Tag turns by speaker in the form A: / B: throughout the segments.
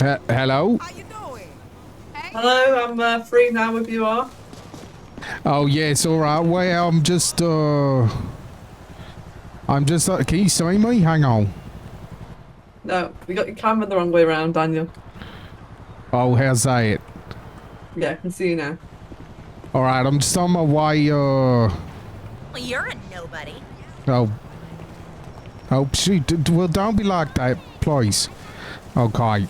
A: He- hello?
B: How you doing?
C: Hello, I'm uh, free now if you are.
A: Oh, yes, all right. Well, I'm just, uh... I'm just, uh, can you see me? Hang on.
C: No, you got your camera the wrong way around, Daniel.
A: Oh, how's that?
C: Yeah, I can see you now.
A: All right, I'm just on my way, uh...
D: Well, you're a nobody.
A: Oh. Oh, shoot. d- d- Well, don't be like that, please. Okay.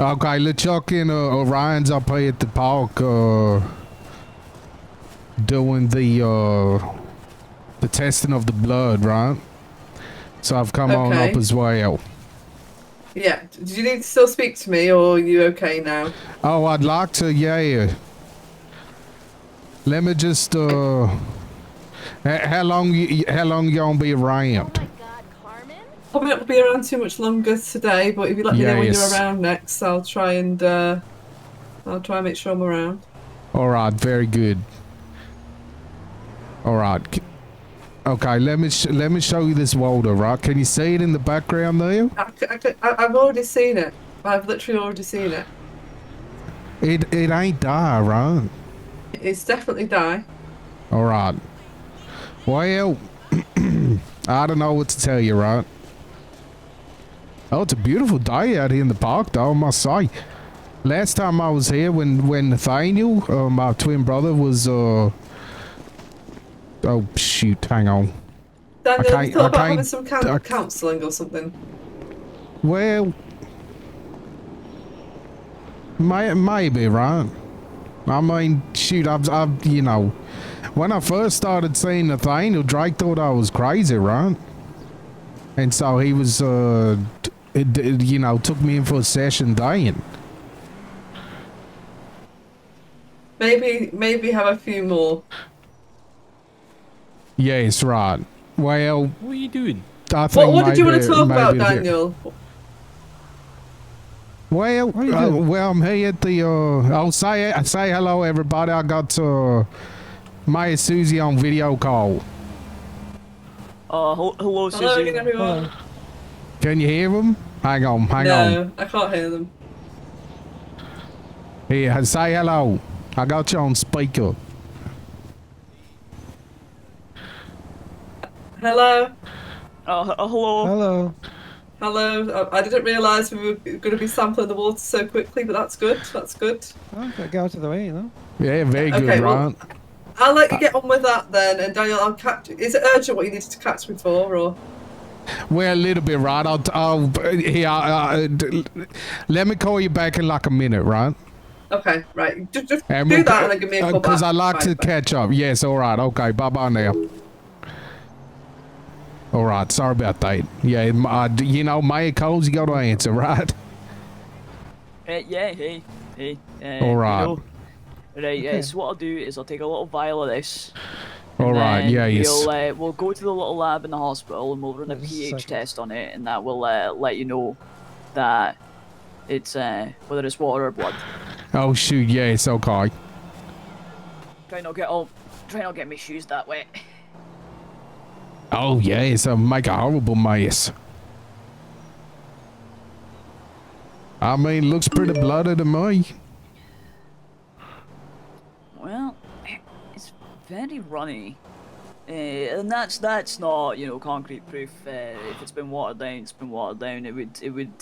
A: Okay, LeChuck and uh, Orion's up here at the park, uh, doing the, uh, the testing of the blood, right? So I've come on
C: Okay.
A: up as well.
C: Yeah, d- do you need to still speak to me or are you okay now?
A: Oh, I'd like to, yeah. Let me just, uh, h- how long, y- y- how long you gonna be around?
D: god, Carmen?
C: Probably not be around too much longer today, but if you let me know when
A: Yes.
C: you're around next, I'll try and uh, I'll try and make sure I'm around.
A: All right, very good. All right. c- Okay, let me sh- let me show you this water, right? Can you see it in the background there?
C: I, c- I, c- I, have already seen it. I've literally already seen it.
A: It it ain't die, right?
C: It's definitely die.
A: All right. Well, I don't know what to tell you, right? Oh, it's a beautiful day out here in the park, though. I must say. Last time I was here, when when Nathaniel, uh, my twin brother, was uh. Oh shoot! Hang on.
C: Daniel, have
A: can't-
C: you thought
A: I
C: about
A: can't-
C: having some coun
A: I-
C: counselling or something?
A: Well, may, maybe right. I mean, shoot, I've, I've, you know, when I first started seeing Nathaniel, Drake thought I was crazy, right? And so he was, uh, t- it, it, you know, took me in for a session then.
C: Maybe maybe have a few more.
A: Yes, right. Well,
E: What are you doing?
A: I think.
C: What, what did you want
A: maybe-
C: to talk about,
A: maybe the-
C: Daniel?
A: Well,
E: you
A: uh,
E: doing?
A: well, I'm here at the. Uh, I'll say say hello, everybody. I got uh, Maya Susie on video call.
F: Uh, hel- hello,
C: Hello
F: Susie.
C: again, everyone.
A: Can you hear him? Hang on, hang on.
C: No, I can't hear them.
A: Here, say hello. I got you on speaker.
C: Hello,
F: Uh, he- uh, hello.
E: Hello.
C: hello. I, I didn't realise we were going to be sampling the water so quickly, but that's good. That's good.
E: Oh, gotta get out of the way, you know.
A: Yeah, very good,
C: Okay, well-
A: right?
C: I'll let you get on with that then, and Daniel, I'll catch. Is it urgent what you needed to catch me for, or
A: Well, a little bit, right? I'll, I'll here. I, I, d- let me call you back in like a minute, right?
C: okay, right? Just, just
A: And
C: do
A: we'll-
C: that and then give me a
A: uh,
C: call back.
A: I like
C: Right,
A: to
C: bye.
A: catch up. Yes, all right. Okay, bye bye now. All right, sorry about that. Yeah, m- uh, d- you know, my calls, you got to answer, right?
F: Uh, yeah, hey, hey. Uh,
A: All right.
F: you know. Right, yeah, so what I'll do is I'll take a little vial of this.
A: All right,
F: then
A: yeah, yes.
F: We'll, uh, we'll go to the little lab in the hospital and we'll run a
E: Just a
F: pH
E: second.
F: test on it, and that will uh, let you know that it's uh, whether it's water or blood.
A: Oh shoot, yes, okay.
F: Try not get all, try not get my shoes that wet.
A: Oh yes, I make a horrible mess. I mean, looks pretty bloody to me.
F: Well, it's very runny. Uh, and that's that's not you know concrete proof. Uh, if it's been watered down, it's been watered down. It would it would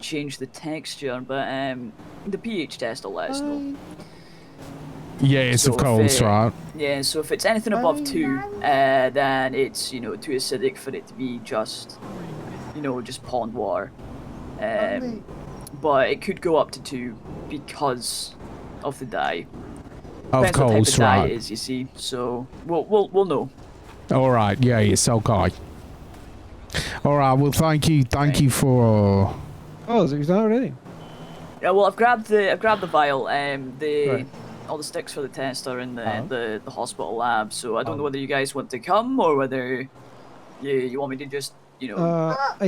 F: change the texture, but um, the pH test will let us know.
A: Yes,
F: So
A: of
F: if,
A: course,
F: uh,
A: right.
F: Yeah, so if it's anything above two, uh, then it's you know too acidic for it to be just you know just pond water. Um, but it could go up to two because of the dye.
A: Of
F: Depends what type
A: course,
F: of dye
A: right.
F: it is, you see. So we'll we'll we'll know.
A: All right, yeah, yes, okay. All right, well, thank you, thank you for. Uh,
E: Oh, so he's done already.
F: Yeah, well, I've grabbed the I've grabbed the vial. Um, the
E: Right.
F: all the sticks for the test are in the
E: Uh-huh.
F: the, the hospital lab.
A: Uh-huh.
F: So I don't know
E: Um.
F: whether you guys want to come or whether you you want me to just you know
E: Uh,